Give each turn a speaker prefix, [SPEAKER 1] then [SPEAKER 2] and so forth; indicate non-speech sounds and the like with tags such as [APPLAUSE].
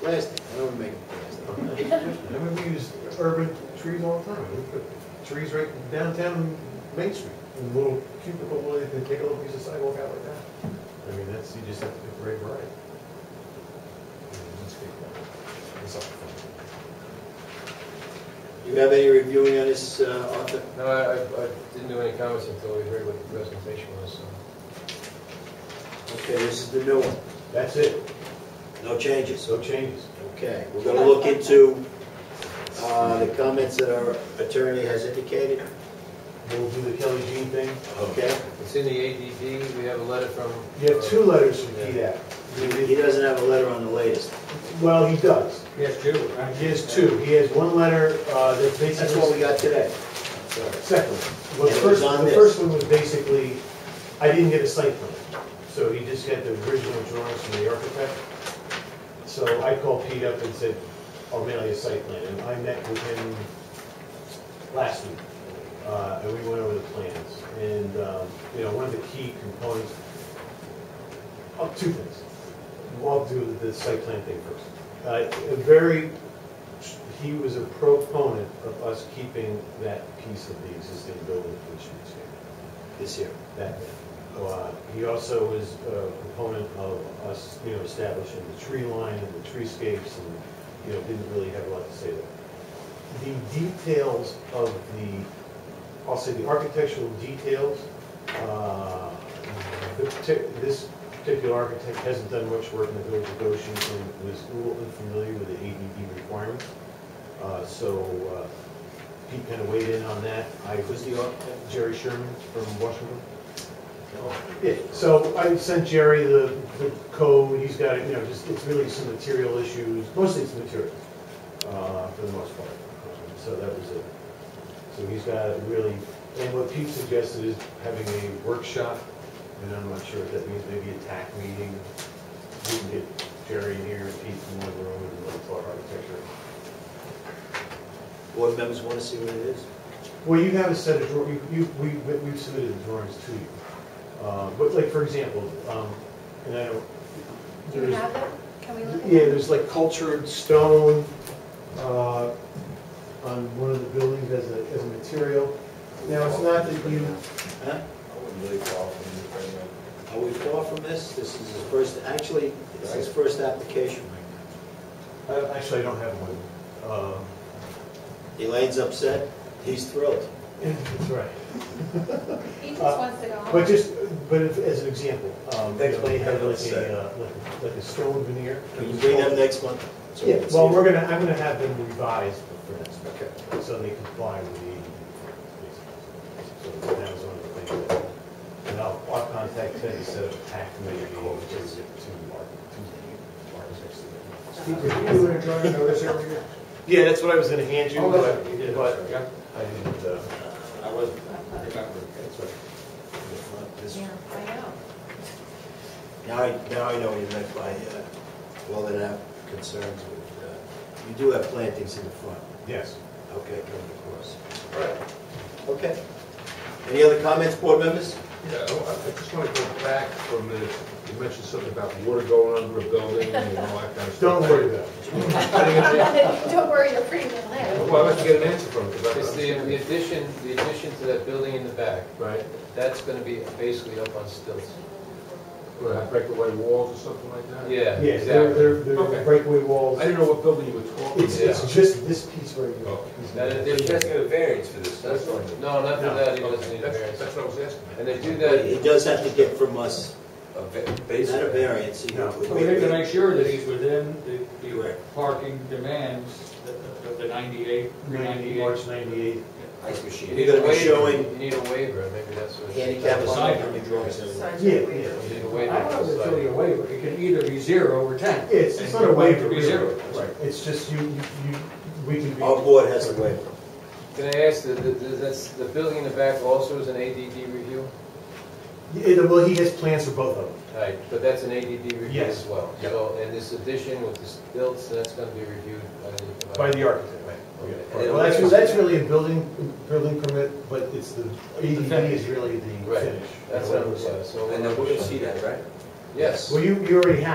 [SPEAKER 1] plastic, I don't make it plastic.
[SPEAKER 2] I mean, we use urban trees all the time. We put trees right downtown Main Street, in little cubicle, where they can take a little piece of sidewalk out like that. I mean, that's, you just have to get the right variety. It's all fun.
[SPEAKER 1] You have any reviewing on this, uh, Arthur?
[SPEAKER 3] No, I, I- I didn't do any comments until we heard what the presentation was, so.
[SPEAKER 1] Okay, this is the new one,
[SPEAKER 2] That's it,
[SPEAKER 1] no changes,
[SPEAKER 2] no changes.
[SPEAKER 1] okay. We're gonna look into, uh, the comments that our attorney has indicated,
[SPEAKER 2] We'll do the Kelly Jean thing.
[SPEAKER 1] okay?
[SPEAKER 3] It's in the ADD, we have a letter from.
[SPEAKER 4] You have two letters from PDAC.
[SPEAKER 1] He doesn't have a letter on the latest.
[SPEAKER 4] Well, he does.
[SPEAKER 3] Yes, Jude.
[SPEAKER 4] He has two. He has one letter uh, that basically...
[SPEAKER 1] That's what we got today.
[SPEAKER 4] Second, well, the
[SPEAKER 1] It was
[SPEAKER 4] first,
[SPEAKER 1] on
[SPEAKER 4] the
[SPEAKER 1] this.
[SPEAKER 4] first one was basically, I didn't get a site plan, so he just got the original drawings from the architect. So I called Pete up and said, I'll mail you a site plan, and I met with him last week, uh, and we went over the plans, and, um, you know, one of the key components, oh, two things. I'll do the site plan thing first. Uh, a very he was a proponent of us keeping that piece of the existing building which is here,
[SPEAKER 1] This here.
[SPEAKER 4] that bit. Uh, He also was a proponent of us, you know, establishing the tree line and the treescapes and, you know, didn't really have a lot to say there. The details of the, I'll say the architectural details, uh, the partic- this particular architect hasn't done much work in the village of Goshen and was a little unfamiliar with the ADD requirements. Uh, So uh, Pete kind of weighed in on that. I was the, architect, Jerry Sherman from Washington. Yeah, so I sent Jerry the, the code, he's got it, you know, just, it's really some material issues, mostly it's material, uh, for the most part. So that was it. So he's got really, and what Pete suggested is having a workshop, and I'm not sure what that means, maybe a TAC meeting. We can get Jerry in here and Pete in one room and look for architecture.
[SPEAKER 1] Board members wanna see what it is?
[SPEAKER 4] Well, you have a set of drawings, you, we, we've submitted the drawings to you. Uh, But like, for example, um, and I don't,
[SPEAKER 5] Do
[SPEAKER 4] there's,
[SPEAKER 5] you
[SPEAKER 4] yeah,
[SPEAKER 5] have them? Can we look at them?
[SPEAKER 4] there's like cultured stone uh, on one of the buildings as a, as a material. Now, it's not that you,
[SPEAKER 1] Huh? Are we far from this? This is his first, actually, it's his first application right
[SPEAKER 4] I- actually, I don't have one. Um,
[SPEAKER 1] now. Elaine's upset, he's thrilled.
[SPEAKER 4] That's right.
[SPEAKER 5] He just
[SPEAKER 4] uh,
[SPEAKER 5] wants to go home.
[SPEAKER 4] But just, but if- as an example, um,
[SPEAKER 2] Thanks,
[SPEAKER 4] they
[SPEAKER 2] Mike.
[SPEAKER 4] have like
[SPEAKER 2] Upset.
[SPEAKER 4] a, uh, like a- like a stone veneer.
[SPEAKER 1] Can you bring them next month? So we
[SPEAKER 4] Yeah,
[SPEAKER 1] can see
[SPEAKER 4] well,
[SPEAKER 1] it?
[SPEAKER 4] we're gonna, I'm gonna have them revised for next month.
[SPEAKER 1] Okay.
[SPEAKER 4] so they comply with the. So that was one of the things that, and I'll, I'll contact Ted instead of TAC committee, to, to, to, to architects. Yeah, that's what I was gonna hand you, but, but
[SPEAKER 3] Yeah.
[SPEAKER 4] I didn't, uh,
[SPEAKER 1] I wasn't, I remember, that's right. This-
[SPEAKER 5] Yeah, I know.
[SPEAKER 1] Now I, now I know what you meant by, uh, well, that I have concerns with, uh, you do have plantings in the front,
[SPEAKER 4] yes.
[SPEAKER 1] okay, coming across. Okay. Any other comments, board members?
[SPEAKER 2] Yeah, I I just want to go back for a minute. You mentioned something about water going under a building and all that kind of stuff.
[SPEAKER 4] Don't worry about it.
[SPEAKER 5] [LAUGHS] Don't worry, the pretty little head.
[SPEAKER 2] Well, I'd like to get an answer from it. 'cause I-
[SPEAKER 3] It's the, the addition, the addition to that building in the back,
[SPEAKER 2] Right,
[SPEAKER 3] that's gonna be basically up on stilts.
[SPEAKER 2] Would I break away walls or something like that?
[SPEAKER 3] Yeah,
[SPEAKER 4] Yes, they're,
[SPEAKER 3] exactly.
[SPEAKER 4] they're, they're
[SPEAKER 2] Okay.
[SPEAKER 4] breakaway walls.
[SPEAKER 2] I didn't know what building you were talking
[SPEAKER 4] It's,
[SPEAKER 2] about.
[SPEAKER 4] it's just this piece right here.
[SPEAKER 2] Oh.
[SPEAKER 3] That is- that's
[SPEAKER 6] a variance for this.
[SPEAKER 3] That's, no, not for
[SPEAKER 4] No.
[SPEAKER 3] that, he doesn't
[SPEAKER 2] Okay,
[SPEAKER 3] need a
[SPEAKER 2] That's
[SPEAKER 3] variance.
[SPEAKER 2] that's what I was asking.
[SPEAKER 3] And they do
[SPEAKER 1] He
[SPEAKER 3] that,
[SPEAKER 1] does have to get from us,
[SPEAKER 6] Base.
[SPEAKER 1] not a variance. he-
[SPEAKER 4] No.
[SPEAKER 7] We have to make sure that he's within the, the
[SPEAKER 1] Correct.
[SPEAKER 7] parking demands of of the ninety-eight, three
[SPEAKER 4] Ninety,
[SPEAKER 7] ninety-eight.
[SPEAKER 4] March ninety-eight.
[SPEAKER 6] Ice
[SPEAKER 3] you
[SPEAKER 6] machine.
[SPEAKER 3] need a
[SPEAKER 1] You're gonna be
[SPEAKER 3] waiver,
[SPEAKER 1] showing-
[SPEAKER 3] you need a waiver, maybe that's what.
[SPEAKER 1] Handicap is
[SPEAKER 3] You
[SPEAKER 1] not on the drawings anyway.
[SPEAKER 4] Yeah, yeah.
[SPEAKER 3] need a
[SPEAKER 7] I
[SPEAKER 3] waiver.
[SPEAKER 7] don't know if
[SPEAKER 3] for
[SPEAKER 7] it's really a
[SPEAKER 3] sliding.
[SPEAKER 7] waiver, it can either be zero or ten.
[SPEAKER 4] Yeah, It's, it's not a waiver,
[SPEAKER 7] It could be
[SPEAKER 4] really.
[SPEAKER 7] zero.
[SPEAKER 4] Right, it's just you, you, you- we can be.
[SPEAKER 1] Our board has a waiver.
[SPEAKER 3] Can I ask, the, the, the- that's, the building in the back also is an ADD review?
[SPEAKER 4] Yeah, well, he has plans for both of them.
[SPEAKER 3] Right, but that's an ADD review
[SPEAKER 4] Yes.
[SPEAKER 3] as well.
[SPEAKER 4] Yep.
[SPEAKER 3] So, and this addition with the stilts, that's gonna be reviewed by the.
[SPEAKER 4] By the architect, right.
[SPEAKER 3] Okay.
[SPEAKER 4] Well, that's, that's really a building, building permit, but it's the, ADD is really the
[SPEAKER 3] Right.
[SPEAKER 4] finish.
[SPEAKER 3] That's what I'm saying, so.
[SPEAKER 6] And then we're gonna see that, right?
[SPEAKER 3] Yes.
[SPEAKER 4] Well, you, you already have